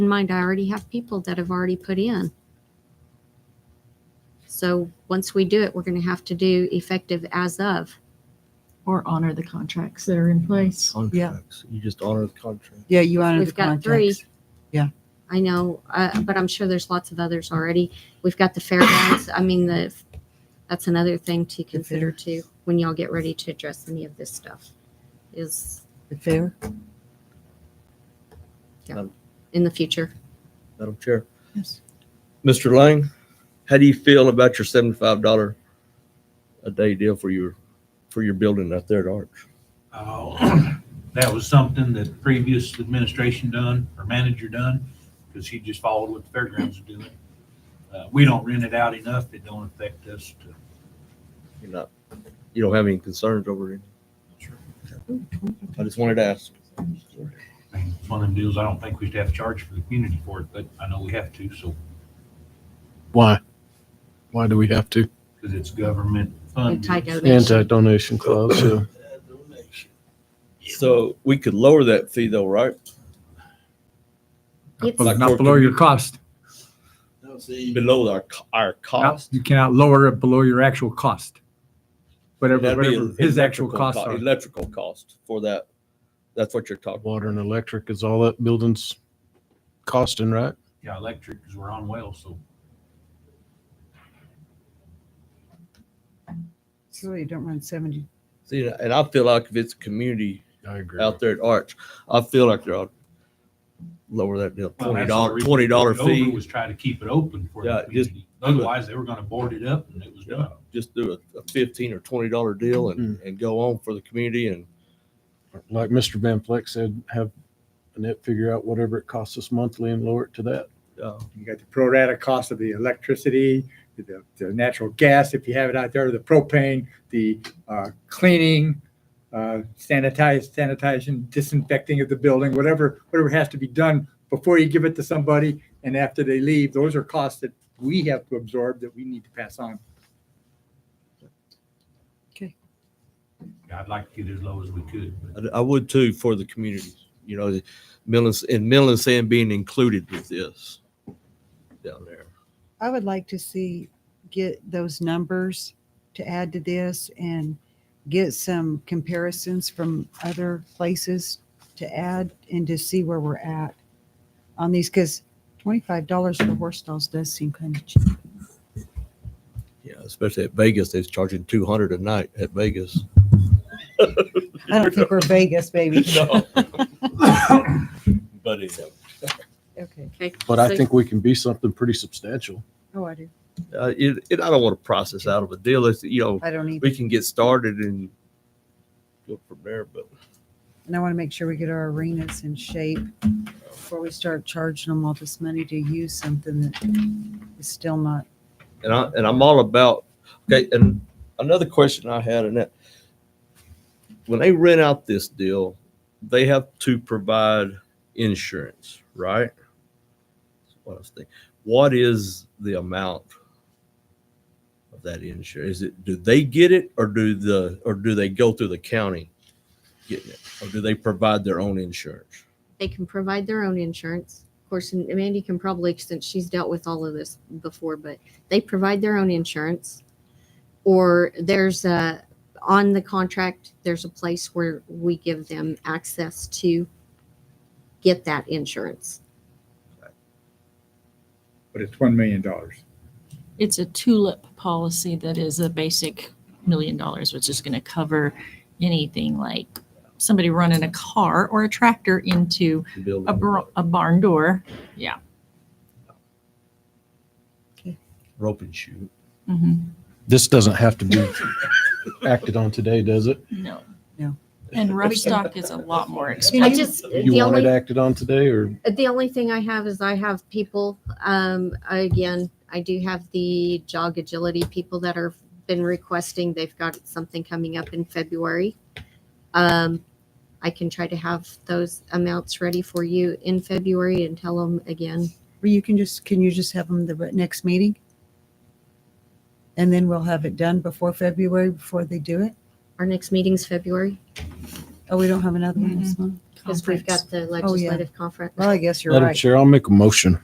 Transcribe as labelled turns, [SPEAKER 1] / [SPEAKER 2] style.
[SPEAKER 1] in mind, I already have people that have already put in. So once we do it, we're going to have to do effective as of.
[SPEAKER 2] or honor the contracts that are in place.
[SPEAKER 3] Contracts, you just honor the contract.
[SPEAKER 4] Yeah, you honor the
[SPEAKER 1] We've got three.
[SPEAKER 4] contracts. Yeah.
[SPEAKER 1] I know, uh, but I'm sure there's lots of others already. We've got the fairgrounds. I mean, the, that's another thing to consider too, when y'all get ready to address any of this stuff is
[SPEAKER 4] The fair,
[SPEAKER 1] in the future.
[SPEAKER 3] Madam Chair.
[SPEAKER 4] Yes.
[SPEAKER 3] Mr. Lang, how do you feel about your seventy-five dollar a day deal for your, for your building out there at Arch?
[SPEAKER 5] Uh, That was something that the previous administration done, or manager done, because he just followed what the fairgrounds are doing. Uh, We don't rent it out enough, it don't affect us to.
[SPEAKER 3] You're not, you don't have any concerns over it? I just wanted to ask.
[SPEAKER 5] I mean, It's one of them deals, I don't think we should have to charge for the community for it, but I know we have to, so,
[SPEAKER 6] Why? Why do we have to?
[SPEAKER 5] because it's government funded.
[SPEAKER 1] Anti-donation.
[SPEAKER 6] uh, Anti-donation clause, yeah.
[SPEAKER 3] So we could lower that fee though, right?
[SPEAKER 1] It's-
[SPEAKER 7] Well,
[SPEAKER 3] Like
[SPEAKER 7] Not
[SPEAKER 3] for
[SPEAKER 7] below your
[SPEAKER 3] commu-
[SPEAKER 7] cost.
[SPEAKER 3] Below our, co- our
[SPEAKER 7] Not-
[SPEAKER 3] cost.
[SPEAKER 7] You cannot lower it below your actual cost. Whatever,
[SPEAKER 3] That'd be
[SPEAKER 7] whatever his actual
[SPEAKER 3] electrical
[SPEAKER 7] costs
[SPEAKER 3] co-
[SPEAKER 7] are.
[SPEAKER 3] Electrical cost for that. That's what you're talking.
[SPEAKER 6] Water and electric is all that building's costing, right?
[SPEAKER 5] Yeah, electric, because we're on well, so
[SPEAKER 4] so you don't run seventy.
[SPEAKER 3] See, and I feel like if it's a community
[SPEAKER 6] I agree.
[SPEAKER 3] out there at Arch. I feel like they're ought lower that deal.
[SPEAKER 5] Well,
[SPEAKER 3] Twenty
[SPEAKER 5] that's the
[SPEAKER 3] dollar,
[SPEAKER 5] reason
[SPEAKER 3] twenty dollar
[SPEAKER 5] Dover
[SPEAKER 3] fee.
[SPEAKER 5] Was try to keep it open for
[SPEAKER 3] Yeah,
[SPEAKER 5] the
[SPEAKER 3] just-
[SPEAKER 5] community. Otherwise, they were gonna board it up and it was done.
[SPEAKER 3] Just do a, a fifteen or twenty dollar deal and, and go on for the community and
[SPEAKER 6] Like Mr. Van Fleck said, have Annette figure out whatever it costs us monthly and lower it to that.
[SPEAKER 3] uh,
[SPEAKER 8] You got the pro rata cost of the electricity, the, the natural gas, if you have it out there, the propane, the uh, cleaning, uh, sanitize, sanitation, disinfecting of the building, whatever, whatever has to be done before you give it to somebody and after they leave, those are costs that we have to absorb that we need to pass on.
[SPEAKER 5] Yeah, I'd like to get as low as we could, but
[SPEAKER 3] I, I would too for the community. You know, the Millis and Millis and being included with this down there.
[SPEAKER 4] I would like to see, get those numbers to add to this and get some comparisons from other places to add and to see where we're at on these, because twenty-five dollars for horse stalls does seem kind of cheap.
[SPEAKER 3] Yeah, especially at Vegas, they're charging two hundred a night at Vegas.
[SPEAKER 4] I don't think we're Vegas, baby.
[SPEAKER 3] No. But anyhow,
[SPEAKER 4] Okay.
[SPEAKER 1] Okay,
[SPEAKER 6] But I
[SPEAKER 1] so-
[SPEAKER 6] think we can be something pretty substantial.
[SPEAKER 4] Oh, I do.
[SPEAKER 3] uh, it, it, I don't want to process out of a deal. It's, you know,
[SPEAKER 4] I don't either.
[SPEAKER 3] we can get started and go from there, but
[SPEAKER 4] And I want to make sure we get our arenas in shape before we start charging them all this money to use something that is still not.
[SPEAKER 3] and I and I'm all about okay. And another question I had in that when they rent out this deal, they have to provide insurance, right? That's what I was thinking. What is the amount of that insurance? Is it do they get it or do the or do they go through the county getting it? Or do they provide their own insurance?
[SPEAKER 1] They can provide their own insurance. Of course, and Mandy can probably, since she's dealt with all of this before, but they provide their own insurance. Or there's a, on the contract, there's a place where we give them access to get that insurance.
[SPEAKER 8] But it's $1 million.
[SPEAKER 9] it's a tulip policy that is a basic million dollars, which is going to cover anything like somebody running a car or a tractor into
[SPEAKER 3] to build
[SPEAKER 9] a, bro- a barn door.
[SPEAKER 3] rope and shoot.
[SPEAKER 2] Mm-hmm.
[SPEAKER 9] Mhm.
[SPEAKER 6] This doesn't have to be acted on today, does it?
[SPEAKER 9] No.
[SPEAKER 4] No.
[SPEAKER 9] And rough stock is a lot more expensive.
[SPEAKER 1] I just,
[SPEAKER 6] You
[SPEAKER 1] the
[SPEAKER 6] want it
[SPEAKER 1] only,
[SPEAKER 6] acted on today or
[SPEAKER 1] the only thing I have is I have people, um, again, I do have the jog agility people that are been requesting. They've got something coming up in February. Um, I can try to have those amounts ready for you in February and tell them again.
[SPEAKER 4] Or you can just, can you just have them the next meeting? And then we'll have it done before February, before they do it?
[SPEAKER 1] Our next meeting's February.
[SPEAKER 4] Oh, we don't have another one this month?
[SPEAKER 10] because we've
[SPEAKER 11] Conference.
[SPEAKER 10] got the
[SPEAKER 1] Oh, yeah.
[SPEAKER 10] legislative conference.
[SPEAKER 1] Well, I guess you're
[SPEAKER 6] Madam
[SPEAKER 1] right.
[SPEAKER 6] Chair, I'll make a motion.